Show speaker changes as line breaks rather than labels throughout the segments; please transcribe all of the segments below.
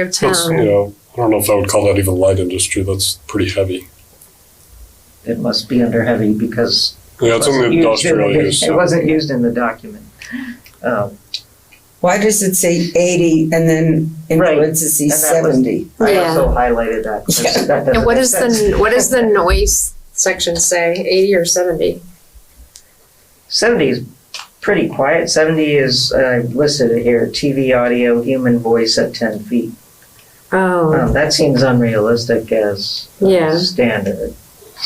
of
That's, you
town.
know, I don't know if I would call that even light industry. That's pretty heavy.
It must be under heavy because.
Yeah, it's
wasn't
only
used in
industrial
the-
use.
It
so-
wasn't used in the document. Um,
Why does it say eighty and then in
Right.
parentheses
And that was-
seventy?
I
Yeah.
also highlighted that. 'cause
Yeah.
that doesn't
And what
make
is the,
sense.
what does the noise section say, eighty or seventy?
Seventy is pretty quiet. Seventy is, I listed it here, TV audio, human voice at ten feet.
Oh,
Um, That seems unrealistic as a
Yeah.
standard.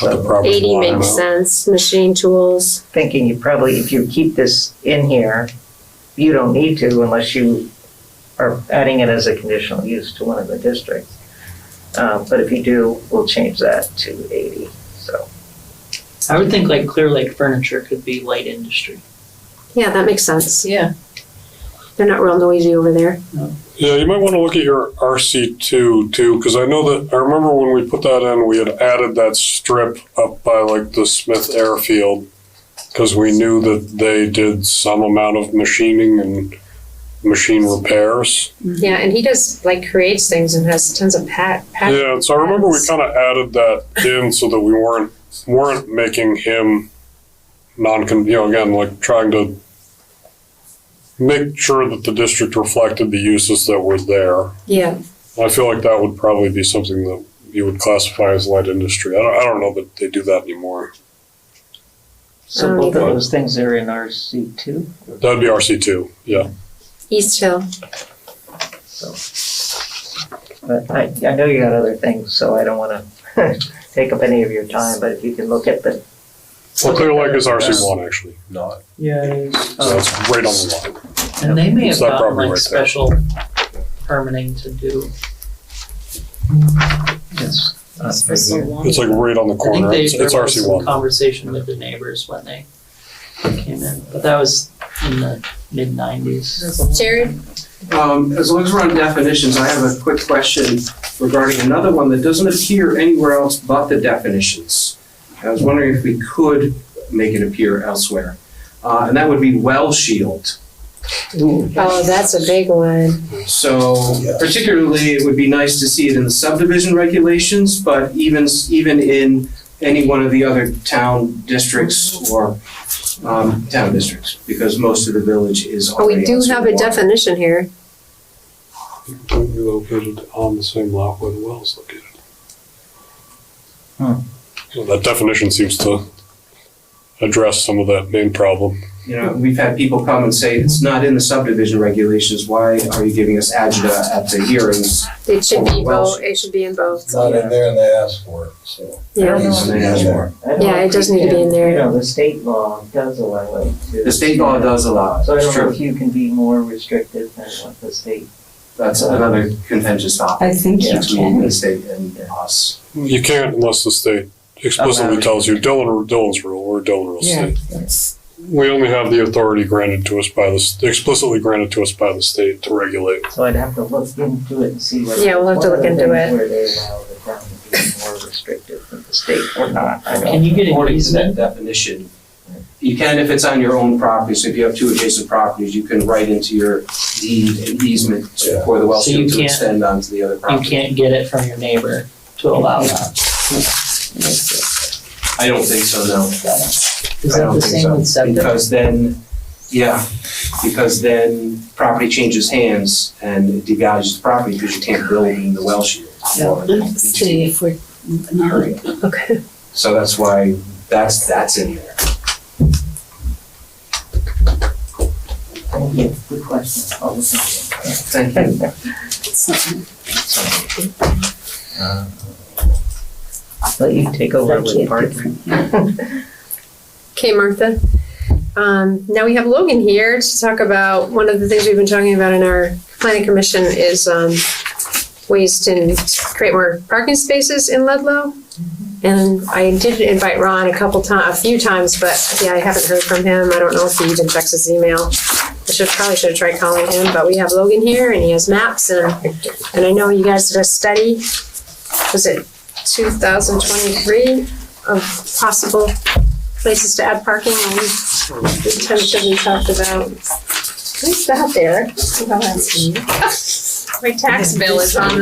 But the
So
property
eighty
line
makes
amount.
sense, machine tools,
thinking you probably, if you keep this in here, you don't need to unless you are adding it as a conditional use to one of the districts. Um, But if you do, we'll change that to eighty, so.
I would think like Clear Lake Furniture could be light industry.
yeah, that makes sense,
Yeah.
they're not real noisy over there.
Yeah, you might want to look at your RC two too, because I know that, I remember when we put that in, we had added that strip up by like the Smith Airfield. Because we knew that they did some amount of machining and machine repairs.
Mm-hmm. Yeah, and he does, like, creates things and has tons of pat, pat.
Yeah, so I remember we kind of added that in so that we weren't, weren't making him non, you know, again, like trying to make sure that the district reflected the uses that were there.
Yeah,
I feel like that would probably be something that you would classify as light industry. I don't, I don't know that they do that anymore.
Oh,
So both of those things are in RC two.
That'd be RC two, yeah.
East Hill,
But I, I know you got other things, so I don't want to take up any of your time, but if you can look at the,
Well, Clear Lake is RC one actually,
not.
Yeah.
so
Oh,
it's right on the line.
And they may
It's
have
that
gotten
property right
like
there.
special permitting to do,
it's, uh,
It's like right on the
I think
corner.
they,
It's,
there
it's
was
RC
some
one.
conversation with the neighbors when they came in, but that was in the mid nineties.
Jared,
Um, as long as we're on definitions, I have a quick question regarding another one that doesn't appear anywhere else but the definitions. I was wondering if we could make it appear elsewhere, uh, and that would be well shield.
oh, that's a big one,
So particularly, it would be nice to see it in the subdivision regulations, but even, even in any one of the other town districts or, um, town districts, because most of the village is
but
already
Oh, we do
on
have a
stormwater.
definition here,
Completely Located on the same lot where the well's located.
Hmm.
So That definition seems to address some of that main problem.
You know, we've had people come and say, it's not in the subdivision regulations, why are you giving us agita at the hearings?
it should be
Well-
both, it should be in both,
It's not in there and they asked for it, so.
yeah.
I don't know.
It's in there.
I don't
Yeah, it
know if
does
you
need to be
can-
in there.
You know, the state law does allow it to.
The state law does allow it,
So I
it's
don't know if
true.
you can be more restrictive than what the state.
That's another contentious topic
I think you
between
can.
the state and us.
You can't unless the state explicitly tells you Dylan, Dylan's rule, or Dylan rule
Yeah.
state. We only have the authority granted to us by the, s- explicitly granted to us by the state to regulate.
So I'd have to look into it and see whether.
Yeah, we'll have to
what
look
are the
into
things
it.
Where they allow the town to be more restrictive than the state or not. I don't-
Can you get an
According to that
easement?
definition, you can if it's on your own property, so if you have two adjacent properties, you can write into your deed an easement
Yeah.
for the well
So you
field to
can't-
extend onto the other
You
property.
can't get it from your neighbor to allow that. Hmm.
I don't think so, no.
Is
I
that
don't
the
think
same
so,
with septic?
Because then, yeah, because then property changes hands and it devalues the property because you can't build in the well shield. or the
See if we're not,
Okay.
So that's why, that's, that's in there.
Thank you. Good question. I'll look into it.
Thank you.
it's not-
Let you take over
Thank
with
you.
part.
Okay, Martha. Um, now we have Logan here to talk about one of the things we've been talking about in our planning commission is um, ways to create more parking spaces in Ludlow. And I did invite Ron a couple ti- a few times, but yeah, I haven't heard from him. I don't know if he even checks his email. I should probably should have tried calling him, but we have Logan here and he has maps and and I know you guys did a study. Was it 2023 of possible places to add parking and the intention we talked about. Who's that there? Oh, that's me. My tax bill is on the